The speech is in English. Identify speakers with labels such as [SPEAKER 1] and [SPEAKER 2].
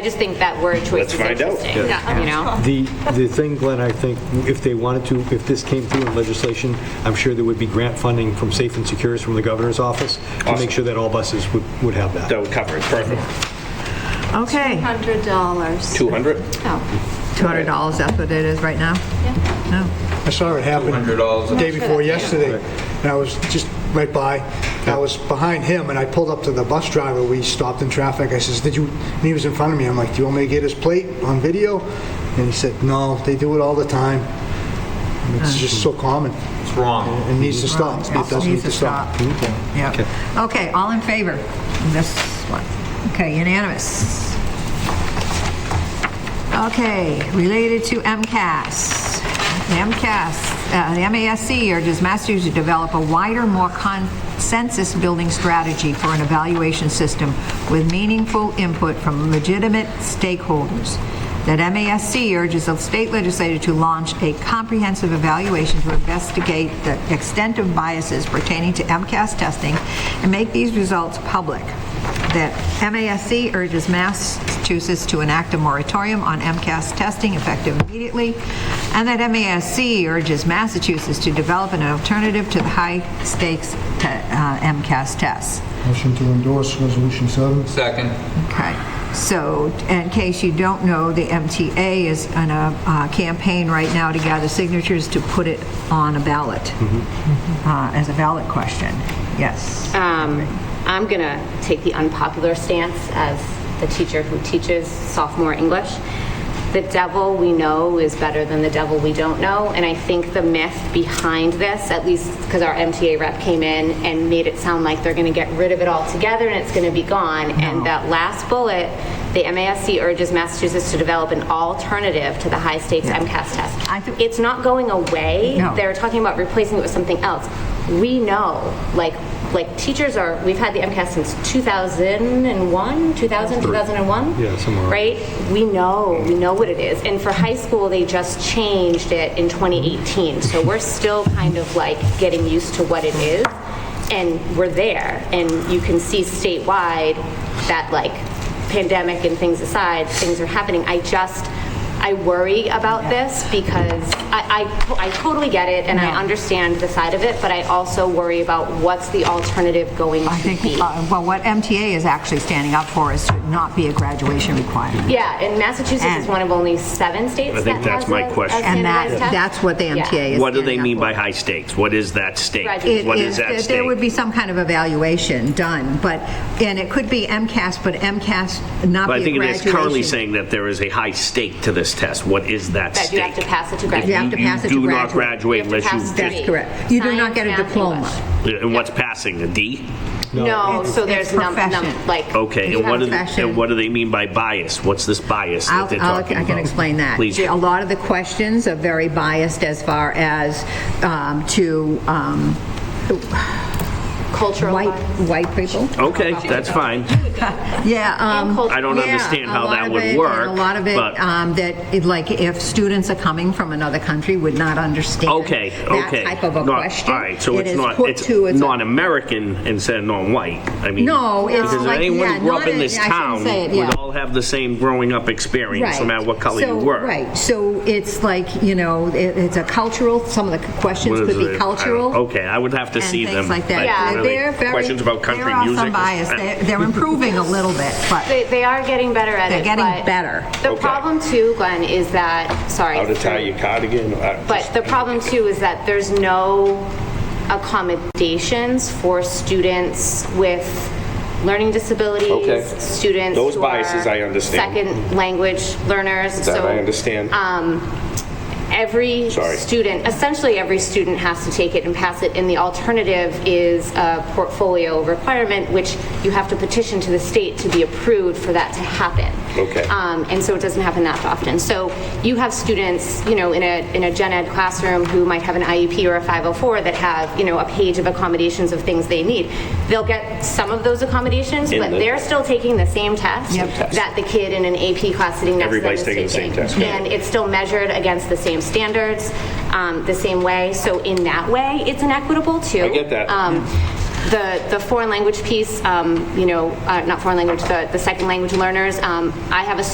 [SPEAKER 1] I just think that word choice
[SPEAKER 2] Let's
[SPEAKER 1] is
[SPEAKER 2] find out.
[SPEAKER 1] interesting,
[SPEAKER 2] Yeah.
[SPEAKER 1] you know?
[SPEAKER 3] The, the thing, Glenn, I think, if they wanted to, if this came through in legislation, I'm sure there would be grant funding from Safe and Secures from the governor's office to
[SPEAKER 2] Awesome.
[SPEAKER 3] make sure that all buses would, would have that.
[SPEAKER 2] That would cover it, perfect.
[SPEAKER 4] Okay,
[SPEAKER 5] Hundred dollars. Oh.
[SPEAKER 2] 200?
[SPEAKER 4] $200, that's what it is right now?
[SPEAKER 6] I saw it happen the day before yesterday, and I was just right by, and I was behind him, and I pulled up to the bus driver, we stopped in traffic, I says, did you, and he was in front of me, I'm like, do you want me to get his plate on video? And he said, no, they do it all the time. And It's just so common. It's wrong. It needs to stop, it does need to stop.
[SPEAKER 4] Yeah. Okay, all in favor? This one. Okay, unanimous. Okay, related to MCAS. The MCAS, uh, the MASC urges Masters to develop a wider, more consensus-building strategy for an evaluation system with meaningful input from legitimate stakeholders. That MASC urges the state legislature to launch a comprehensive evaluation to investigate the extent of biases pertaining to MCAS testing and make these results public that MASC urges Massachusetts to enact a moratorium on MCAS testing effective immediately, and that MASC urges Massachusetts to develop an alternative to the high-stakes te- uh, MCAS tests.
[SPEAKER 7] Motion to endorse Resolution 7.
[SPEAKER 8] Second.
[SPEAKER 4] Okay, so in case you don't know, the MTA is on a uh, campaign right now to gather signatures to put it on a ballot, uh, as a ballot question. Yes.
[SPEAKER 1] Um, I'm going to take the unpopular stance as the teacher who teaches sophomore English. The devil we know is better than the devil we don't know, and I think the myth behind this, at least because our MTA rep came in and made it sound like they're going to get rid of it altogether and it's going to be gone, and that last bullet, the MASC urges Massachusetts to develop an alternative to the high-stakes MCAS test.
[SPEAKER 4] I think-
[SPEAKER 1] It's not going away.
[SPEAKER 4] No.
[SPEAKER 1] They're talking about replacing it with something else. We know, like, like teachers are, we've had the MCAS since 2001, 2000, 2001?
[SPEAKER 3] Yeah, somewhere.
[SPEAKER 1] Right?
[SPEAKER 4] Mm-hmm.
[SPEAKER 1] We know, we know what it is. And for high school, they just changed it in 2018. So we're still kind of like getting used to what it is. And we're there. And you can see statewide that like pandemic and things aside, things are happening. I just, I worry about this because I, I to- I totally get it and I understand the side of it, but I also worry about what's the alternative going
[SPEAKER 4] I
[SPEAKER 1] to
[SPEAKER 4] think,
[SPEAKER 1] be.
[SPEAKER 4] uh, well, what MTA is actually standing up for is to not be a graduation
[SPEAKER 2] Mm-hmm.
[SPEAKER 4] requirement.
[SPEAKER 1] Yeah, and Massachusetts is
[SPEAKER 4] And-
[SPEAKER 1] one of only seven states
[SPEAKER 2] I
[SPEAKER 1] that
[SPEAKER 2] think that's
[SPEAKER 1] has
[SPEAKER 2] my
[SPEAKER 1] a- a
[SPEAKER 2] question.
[SPEAKER 4] And that,
[SPEAKER 1] standardized test.
[SPEAKER 4] that's what the
[SPEAKER 1] Yeah.
[SPEAKER 4] MTA is.
[SPEAKER 2] What do they
[SPEAKER 4] standing up
[SPEAKER 2] mean by
[SPEAKER 4] for.
[SPEAKER 2] high stakes? What is that stake?
[SPEAKER 1] Graduation.
[SPEAKER 2] What
[SPEAKER 4] It
[SPEAKER 2] is that
[SPEAKER 4] is- There would
[SPEAKER 2] stake?
[SPEAKER 4] be some kind of evaluation done, but, and it could be MCAS, but MCAS not
[SPEAKER 2] But I
[SPEAKER 4] be a
[SPEAKER 2] think it is currently
[SPEAKER 4] graduation.
[SPEAKER 2] saying that there is a high stake to this test. What is that stake?
[SPEAKER 1] That you have to pass it to graduate.
[SPEAKER 4] You have to pass it to
[SPEAKER 2] do not graduate
[SPEAKER 4] graduate.
[SPEAKER 1] You have to
[SPEAKER 2] unless
[SPEAKER 1] pass
[SPEAKER 2] you
[SPEAKER 1] the
[SPEAKER 4] That's
[SPEAKER 2] just...
[SPEAKER 1] grade.
[SPEAKER 4] correct. You do not
[SPEAKER 1] Science,
[SPEAKER 4] get a
[SPEAKER 1] math,
[SPEAKER 4] diploma.
[SPEAKER 1] English.
[SPEAKER 2] And what's passing, a D?
[SPEAKER 1] No, so
[SPEAKER 4] it's
[SPEAKER 1] there's num, num,
[SPEAKER 4] profession.
[SPEAKER 1] like.
[SPEAKER 2] Okay,
[SPEAKER 4] You
[SPEAKER 2] and what
[SPEAKER 4] have
[SPEAKER 2] do,
[SPEAKER 4] fashion.
[SPEAKER 2] and what do they mean by bias? What's this bias
[SPEAKER 4] I'll-
[SPEAKER 2] that they're
[SPEAKER 4] I'll-
[SPEAKER 2] talking
[SPEAKER 4] I can
[SPEAKER 2] about?
[SPEAKER 4] explain that.
[SPEAKER 2] Please.
[SPEAKER 4] A lot of the questions are very biased as far as um, to um,
[SPEAKER 1] Cultural
[SPEAKER 4] white,
[SPEAKER 1] bias.
[SPEAKER 4] white people.
[SPEAKER 2] Okay, that's fine.
[SPEAKER 4] Yeah. um,
[SPEAKER 1] culture.
[SPEAKER 2] I don't
[SPEAKER 4] yeah,
[SPEAKER 2] understand
[SPEAKER 4] a
[SPEAKER 2] how
[SPEAKER 4] lot
[SPEAKER 2] that
[SPEAKER 4] of
[SPEAKER 2] would
[SPEAKER 4] it, and
[SPEAKER 2] work,
[SPEAKER 4] A lot of it,
[SPEAKER 2] but-
[SPEAKER 4] um, that, it- like, if students are coming from another country, would not understand.
[SPEAKER 2] Okay, okay.
[SPEAKER 4] That type of a
[SPEAKER 2] Not-
[SPEAKER 4] question.
[SPEAKER 2] All right, so
[SPEAKER 4] It
[SPEAKER 2] it's
[SPEAKER 4] is
[SPEAKER 2] not,
[SPEAKER 4] put
[SPEAKER 2] it's
[SPEAKER 4] to- a-
[SPEAKER 2] non-American instead of non-white. I mean,
[SPEAKER 4] No, it's
[SPEAKER 2] because if
[SPEAKER 4] like-
[SPEAKER 2] anyone
[SPEAKER 4] yeah,
[SPEAKER 2] who grew up
[SPEAKER 4] not
[SPEAKER 2] in
[SPEAKER 4] a-
[SPEAKER 2] this
[SPEAKER 4] I shouldn't
[SPEAKER 2] town
[SPEAKER 4] say it,
[SPEAKER 2] would
[SPEAKER 4] yeah.
[SPEAKER 2] all have the same growing up experience, no
[SPEAKER 4] Right.
[SPEAKER 2] matter what color you
[SPEAKER 4] So-
[SPEAKER 2] were.
[SPEAKER 4] Right, so it's like, you know, it- it's a cultural, some of the questions
[SPEAKER 2] What is
[SPEAKER 4] could
[SPEAKER 2] it? I don't-
[SPEAKER 4] be cultural.
[SPEAKER 2] Okay, I would have to see them.
[SPEAKER 4] And things like that.
[SPEAKER 2] really,
[SPEAKER 4] They're very-
[SPEAKER 2] Questions about country
[SPEAKER 4] There are
[SPEAKER 2] music.
[SPEAKER 4] some bias, They're- they're improving a little bit, but.
[SPEAKER 1] They, they are getting better at
[SPEAKER 4] They're
[SPEAKER 1] it.
[SPEAKER 4] getting
[SPEAKER 1] but
[SPEAKER 4] better.
[SPEAKER 1] The
[SPEAKER 2] Okay.
[SPEAKER 1] problem too, Glenn, is that, sorry.
[SPEAKER 2] How to tie your cardigan. I-
[SPEAKER 1] But the problem too is that there's no accommodations for students with learning disabilities.
[SPEAKER 2] Okay.
[SPEAKER 1] Students
[SPEAKER 2] Those
[SPEAKER 1] who are
[SPEAKER 2] biases I understand.
[SPEAKER 1] Second language learners.
[SPEAKER 2] That
[SPEAKER 1] So,
[SPEAKER 2] I understand.
[SPEAKER 1] Um, every
[SPEAKER 2] Sorry.
[SPEAKER 1] student, essentially every student has to take it and pass it, and the alternative is a portfolio requirement, which you have to petition to the state to be approved for that to happen.
[SPEAKER 2] Okay.
[SPEAKER 1] Um, and so it doesn't happen that often. So you have students, you know, in a, in a gen ed classroom who might have an IEP or a 504 that have, you know, a page of accommodations of things they need. They'll get some of those accommodations, but
[SPEAKER 2] the-
[SPEAKER 1] they're still taking the same test that the kid in an AP class sitting next to them
[SPEAKER 2] Everybody's
[SPEAKER 1] is
[SPEAKER 2] taking the same test, yeah.
[SPEAKER 1] And it's still measured against the same standards, um, the same way. So in that way, it's inequitable too.
[SPEAKER 2] I get that.
[SPEAKER 1] Um, the, the foreign language piece, um, you know, uh, not foreign language, the, the second language learners, um, I have a